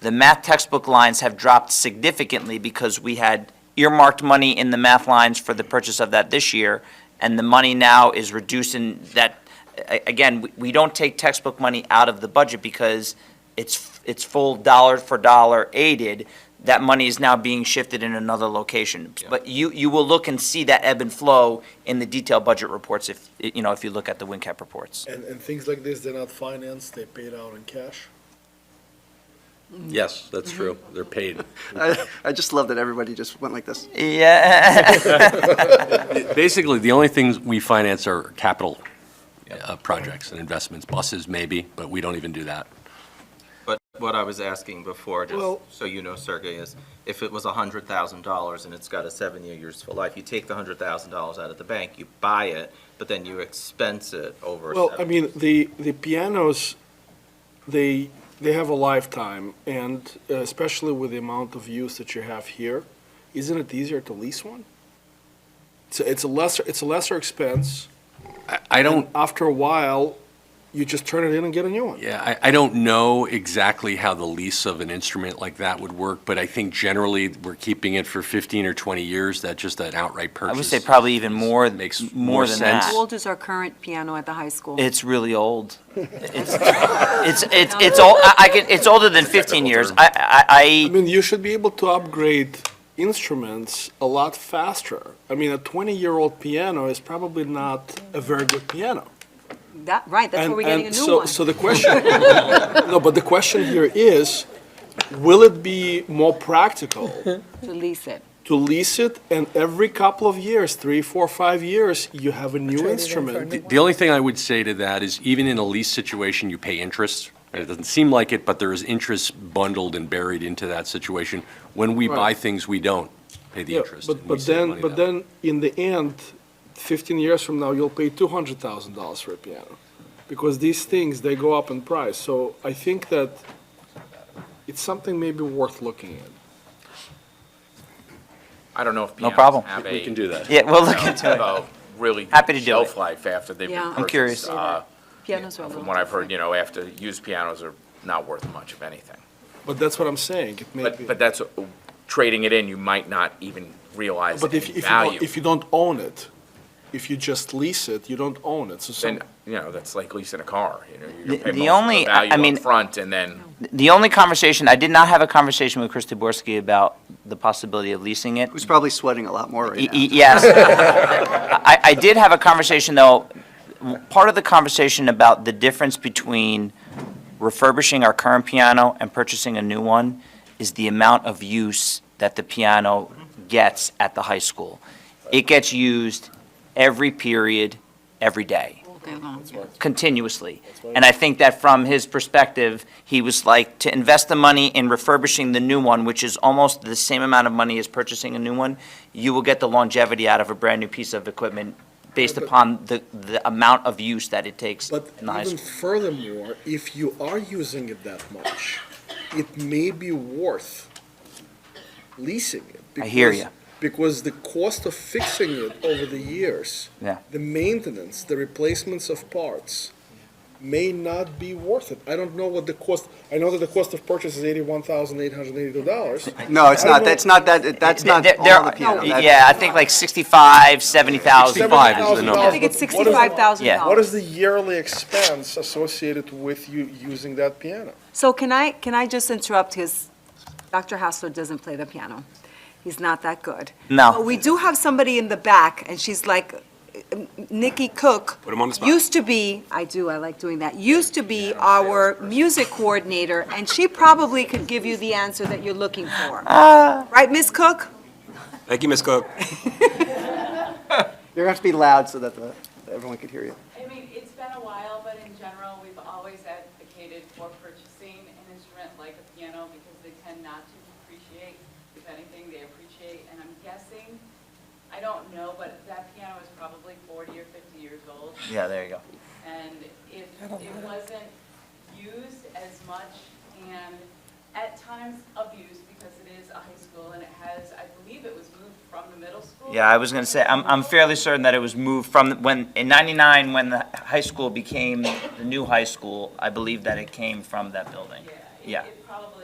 the math textbook lines have dropped significantly because we had earmarked money in the math lines for the purchase of that this year, and the money now is reduced in that, a- again, we- we don't take textbook money out of the budget because it's, it's full dollar for dollar aided. That money is now being shifted in another location. But you, you will look and see that ebb and flow in the detailed budget reports if, you know, if you look at the WinCap reports. And, and things like this, they're not financed, they paid out in cash. Yes, that's true. They're paid. I, I just love that everybody just went like this. Yeah. Basically, the only things we finance are capital uh, projects and investments, buses maybe, but we don't even do that. But what I was asking before, just Well- so you know, Sergey, is if it was hundred thousand dollars and it's got a seven-year useful life, you take the hundred thousand dollars out of the bank, you buy it, but then you expense it over. Well, I seven- mean, the, the pianos, they, they have a lifetime, and uh, especially with the amount of use that you have here, isn't it easier to lease one? It's, a- it's a lesser, it's a lesser expense. I- I don't, After a while, you just turn it in and get a new one. yeah, I, I don't know exactly how the lease of an instrument like that would work, but I think generally we're keeping it for 15 or 20 years, that just an outright I purchase. would say probably even more, Makes more more than sense. that. How old is our current piano at the high school? It's really old. It's, it's, it's, it's old, I I can, it's older than 15 years. I, I I, mean, you should be able to upgrade instruments a lot faster. I mean, a 20-year-old piano is probably not a very good piano. That, right, that's where we're getting a new so, one. So the question, no, but the question here is, will it be more practical To lease it. to lease it and every couple of years, three, four, five years, you have a new The- instrument? The only thing I would say to that is even in a lease situation, you pay interest. And It doesn't seem like it, but there is interest bundled and buried into that situation. When we buy Right. things, we don't pay the Yeah, interest. but and we but save then, money but that way. then, in the end, fifteen years from now, you'll pay two hundred thousand dollars for a piano, because these things they go up in price. So I think that it's something maybe worth looking at. I don't know if No pianos problem. have We a- can do that. yeah, well, look have into it. a really Happy good to do it. shelf life after they've Yeah. been I'm curious. purchased. Uh, Pianos are a little. From what I've heard, different. you know, after, used pianos are not worth much of anything. But that's what I'm saying. It may be. But, but that's, uh, trading it in, you might not even realize But any if, if, you don't, value. if you don't own it, if you just lease it, you don't own it. So some, Then, you know, that's like leasing a car, you know, you The- the pay most of the only- I- I mean- value upfront and then. The only conversation, I did not have a conversation with Chris Duborski about the possibility of leasing it. Who's probably sweating a lot more Y- right y- now. Yes. I, I did have a conversation, though, w- part of the conversation about the difference between refurbishing our current piano and purchasing a new one is the amount of use that the piano gets at the high school. It gets used every period, every day Okay, well, yeah. continuously. And I think that from his perspective, he was like, to invest the money in refurbishing the new one, which is almost the same amount of money as purchasing a new one, you will get the longevity out of a brand-new piece of equipment based upon the, the amount of use that it takes But in the high even school. furthermore, if you are using it that much, it may be worth leasing it. I hear because- ya. Because the cost of fixing it over the years, Yeah. the maintenance, the replacements of parts, may not be worth it. I don't know what the cost, I know that the cost of purchase is eighty-one thousand eight hundred and eighty-two dollars. No, it's I not, don't- that's not that, that's not There- there all the are- e, piano. That's- Yeah, I think like sixty-five, seventy thousand. 65 is the number. I think it's But what is- sixty-five thousand Yeah. What dollars. is the yearly expense associated with you using that piano? So can I, can I just interrupt his, Dr. Hassler doesn't play the piano. He's not that good. No. But we do have somebody in the back, and she's like, uh, Nikki Cook. Put him on the spot. Used to be, I do, I like doing that, used to be our music coordinator, and she probably could give you the answer that you're looking for. Right, Ms. Cook? Thank you, Ms. Cook. You're gonna have to be loud so that the, everyone could hear you. I mean, it's been a while, but in general, we've always advocated for purchasing an instrument like a piano because they tend not to depreciate. If anything, they appreciate, and I'm guessing, I don't know, but that piano is probably 40 or 50 years old. Yeah, there you go. And if it wasn't used as much and at times abused because it is a high school and it has, I believe it was moved from the middle school. Yeah, I was gonna say, I'm, I'm fairly certain that it was moved from, when, in ninety-nine, when the high school became the new high school, I believe that it came from that building. Yeah, it- Yeah. it probably